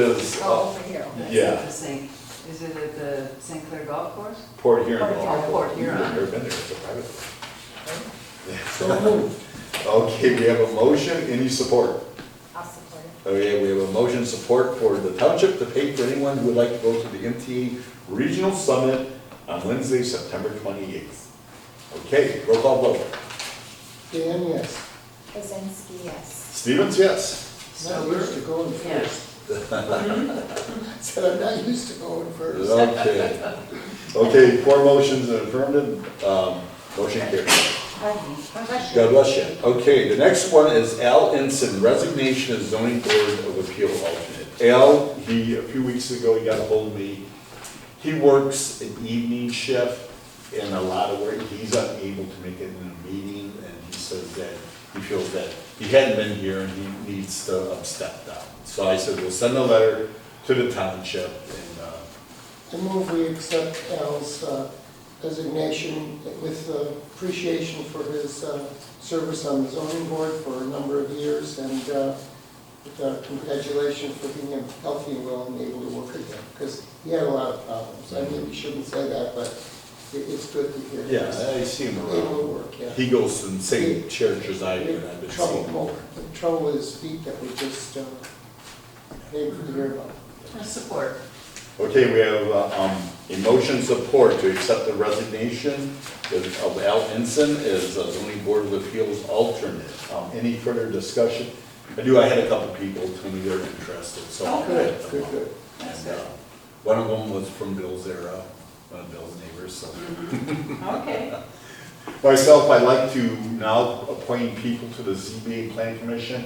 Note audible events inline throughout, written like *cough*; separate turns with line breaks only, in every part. was
Oh,
uh,
over here.
Yeah.
That's the Saint- Is it at the St. Clair Golf Course?
Port Huron.
Port Huron, Port Huron.
I've never been there, it's a private. place.
So moved.
*laughs* Okay, we have a motion, any support?
I'll support it.
Okay, we have a motion support for the township to pay for anyone who would like to go to the MTA Regional Summit on Wednesday, September 28th. Okay, roll call vote.
Dan, yes.
Kazinsky, yes.
Stevens, yes.
Not used to going first. *laughs* Said I'm not used to going first.
Okay. Okay, four motions in affirmative, um, motion carried. God bless you. Okay, the next one is Al Ensign, resignation as zoning board of appeal alternate. Al, he, a few weeks ago, he got ahold of me. He works an evening shift in a lot of work. He's unable to make it in a meeting, and he says that, he feels that he hadn't been here and he needs to um, step down. So I said, we'll send a letter to the township and, uh,
I move we accept Al's uh, resignation with uh, appreciation for his uh, service on the zoning board for a number of years and uh, with, uh, congratulations for being healthy and well and able to work again, because he had a lot of problems. I mean, we shouldn't say that, but it- it's good to hear.
yeah,
he's
I see him
Able to
around.
work, yeah.
He goes to the same church as I do, and I've been seeing him.
Trouble, the trouble with his feet that we just, uh, able to hear about.
Support.
Okay, we have, uh, um, a motion support to accept the resignation of of Al Ensign as a zoning board of appeals alternate. Um, any further discussion? I do, I had a couple people tell me they're interested, so. I'll let
Oh, good,
them
good,
know.
good.
And, uh, one of them was from Bill's era, one of Bill's neighbors, so.
Mm-hmm.
Okay.
Myself, I'd like to now appoint people to the ZBA Plan Commission.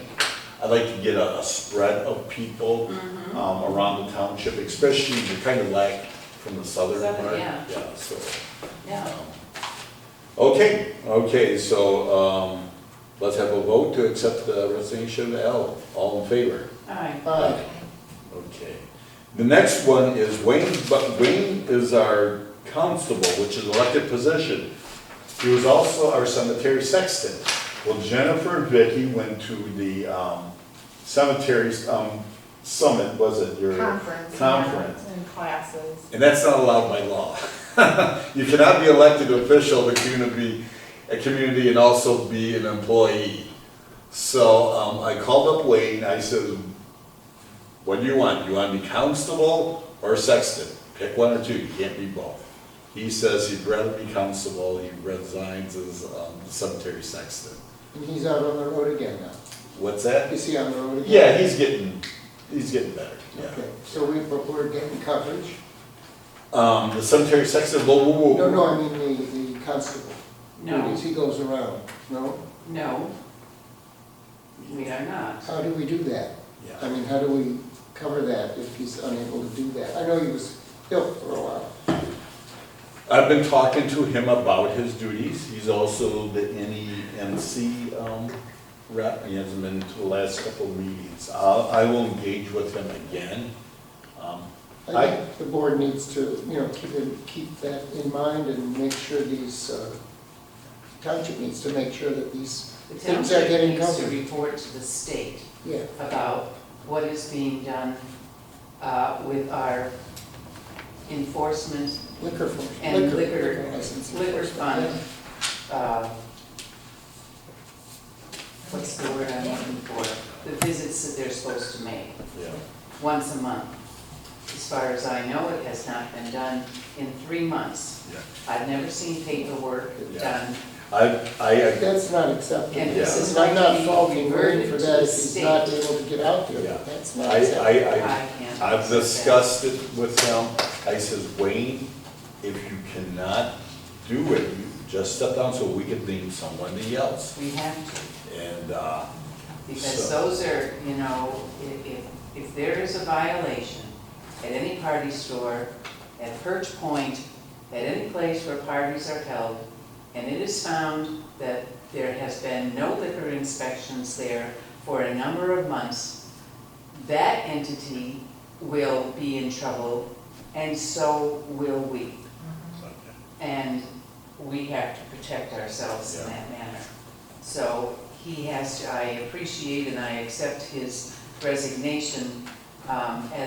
I'd like to get a, a spread of people,
Mm-hmm.
um, around the township, especially the kind of lack from the southern
Southern,
part.
yeah.
Yeah, so. um,
Yeah.
Okay, okay, so, um, let's have a vote to accept the resignation of Al. All in favor?
Aye.
Aye.
Okay. The next one is Wayne, but Wayne is our constable, which is elected position. He was also our cemetery sexton. Well, Jennifer and Vicky went to the, um, cemeteries, um, summit, was it? Your
Conference.
Conference.
And classes.
And that's not allowed by law. *laughs* You cannot be elected official of a community, a community and also be an employee. So, um, I called up Wayne, I said, what do you want? You wanna be constable or sexton? Pick one or two, you can't be both. He says he'd rather be constable, he resigns as, um, cemetery sexton.
And he's out on the road again now.
What's that?
Is he on the road again?
Yeah, he's getting, he's getting better, yeah.
Okay, so we, but we're getting coverage?
Um, the cemetery sexton, whoa, whoa, whoa.
No, no, I mean the, the constable.
No,
Because he goes around, no?
no. We are not.
How do we do that?
Yeah.
I mean, how do we cover that if he's unable to do that? I know he was ill for a while.
I've been talking to him about his duties. He's also the NEMC um, rep. He hasn't been to the last couple of meetings. I'll- I will engage with him again. Um,
I
I-
think the board needs to, you know, keep, it- keep that in mind and make sure these, uh, township needs to make sure that these
The
things are
township
getting
needs to
covered.
report to the state
Yeah,
about what is being done uh, with our enforcement
liquor for.
and liquor,
license.
liquor fund. uh, What's the word I'm looking for? The visits that they're supposed to make.
yeah.
once a month. As far as I know, it has not been done in three months.
Yeah.
I've never seen paperwork
Yeah.
done,
I, I,
That's not acceptable.
and
Yeah.
this is
I'm
like
not
being
faulting Wayne
reverted
for
to
that
the
if he's not
state.
able to get out there,
Yeah.
but that's
I,
not acceptable.
I, I-
I can't.
I've
accept
discussed it with him. I says, Wayne, if you cannot do it, you just step down so we can name somebody
that.
else.
We have to,
And, uh,
because
So-
those are, you know, if, if, if there is a violation at any party store, at Perch Point, at any place where parties are held, and it is found that there has been no liquor inspections there for a number of months, that entity will be in trouble, and so will we. And we have to protect ourselves in
Yeah.
that manner. So he has, to I appreciate and I accept his resignation um, as